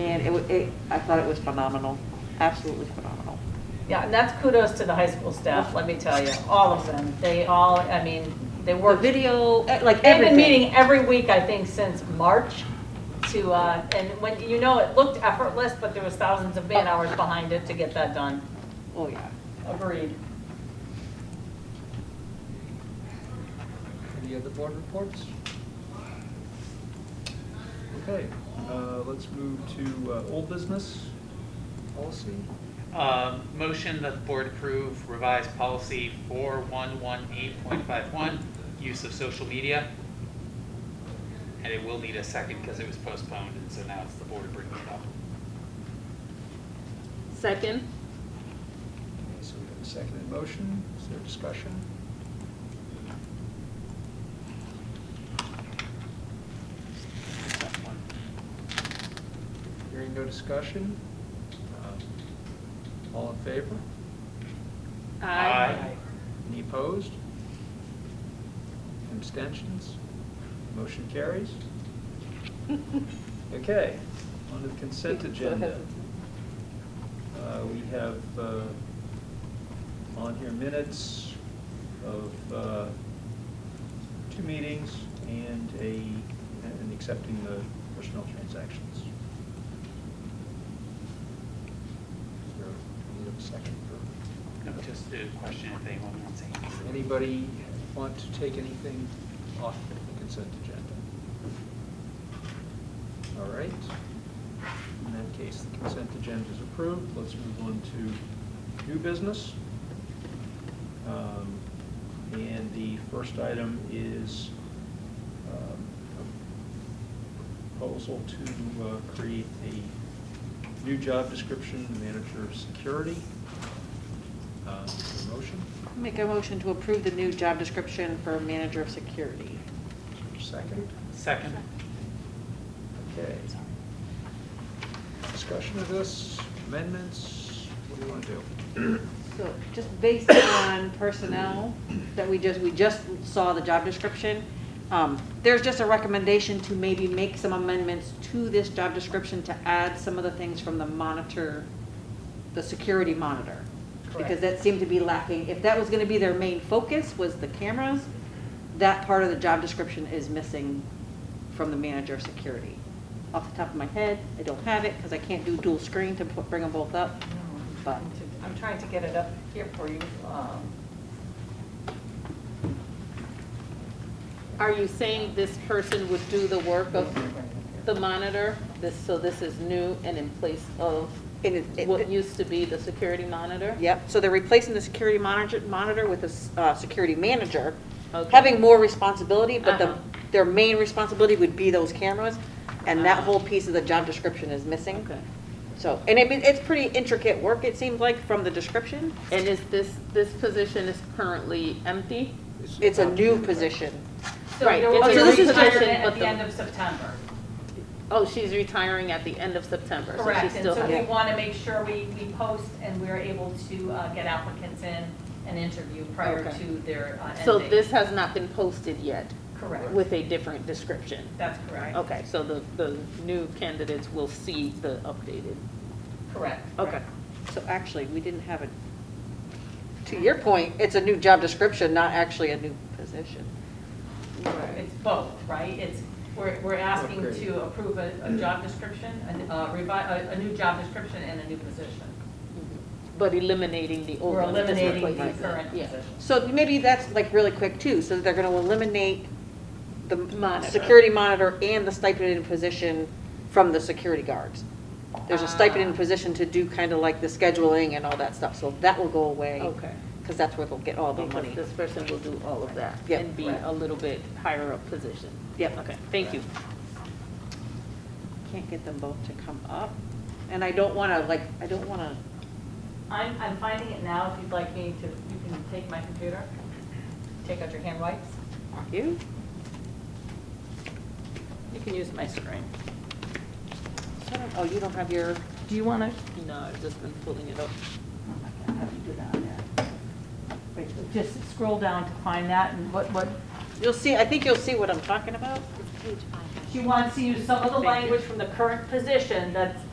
and it, wa- it, I thought it was phenomenal, absolutely phenomenal. Yeah, and that's kudos to the high school staff, let me tell you, all of them. They all, I mean, they The worked. video, eh, like They've been everything. meeting every week, I think, since March to, uh, and when, you know, it looked effortless, but there was thousands of man hours behind it to get that done. Oh, yeah. Agreed. Any other board reports? Okay, uh, let's move to uh, old business policy. Uh, Motion that the board approve revised policy 4118.51, use of social media. And it will need a second because it was postponed, and so now it's the board bringing it up. Second? Okay, So we have a second in motion. Is there discussion? Hearing no discussion. uh, All in favor? Aye. Any opposed? Abstentions? Motion carries? Okay, on to the consent agenda. Uh, We have uh, on here minutes of uh, two meetings and a, and accepting the personnel transactions. Is there, we have a second for No, Just a question if anyone wants anything. Anybody want to take anything off the consent agenda? All right. In that case, the consent agenda is approved. Let's move on to new business. Um, And the first item is um, a proposal to uh, create a new job description, manager of security. Uh, is there a Motion? Make a motion to approve the new job description for manager of security. Second? Second? Okay. Discussion of this, amendments, what do you want to do? So just based on personnel that we just, we just saw the job description, um, there's just a recommendation to maybe make some amendments to this job description to add some of the things from the monitor, the security monitor. Because Correct. that seemed to be lacking. If that was gonna be their main focus, was the cameras, that part of the job description is missing from the manager of security. Off the top of my head, I don't have it, because I can't do dual screen to put- bring them both up, but. I'm trying to get it up here for you. um, Are you saying this person would do the work of the monitor? This, so this is new and in place of And it- it- what used to be the security monitor? Yep, so they're replacing the security monitor, monitor with a, s- uh, security manager, Okay. having more responsibility, but the, Uh-huh. their main responsibility would be those cameras, and that Uh-huh. whole piece of the job description is missing. Okay. So, and I mean, it's pretty intricate work, it seems like, from the description. And is this, this position is currently empty? It's a new position. So Right, there it's will be a a reposition, retirement but at the- the end of September. Oh, she's retiring at the end of September, so she Correct, and still so we has. want to make sure we, we post and we're able to uh, get applicants in and interview prior Okay. to their uh, end So date. this has not been posted yet Correct, with Oh. a different description? that's correct, Okay, so the, the new candidates will see the updated? correct. Okay. So actually, we didn't have a, to your point, it's a new job description, not actually a new position. It's both, right? It's, we're, we're asking Upgrade. to approve a, a job description, a, uh, revi, a, a new job description and a new position. But eliminating the old We're one. just eliminating the replacing it. current Yeah. position. So maybe that's like really quick too, so they're gonna eliminate the Monitor. security monitor and the stipended position from the security guards. There's a stipended Ah. position to do kind of like the scheduling and all that stuff, so that will go away. Okay. Because that's where they'll get all the Because money. this person will do all of that Yep. and be a little bit higher up position. Yep. Okay, thank you. Can't get them both to come up, and I don't wanna, like, I don't wanna, I'm, I'm finding it now, if you'd like me to, you can take my computer, take out your hand wipes. you? You can use my screen. So I don't- Oh, you don't have your, Do you want to? No, I've just been pulling it up. Just scroll down to find that and what, what. you'll see, I think you'll see what I'm talking about. She wants to use some of the language from the current position that's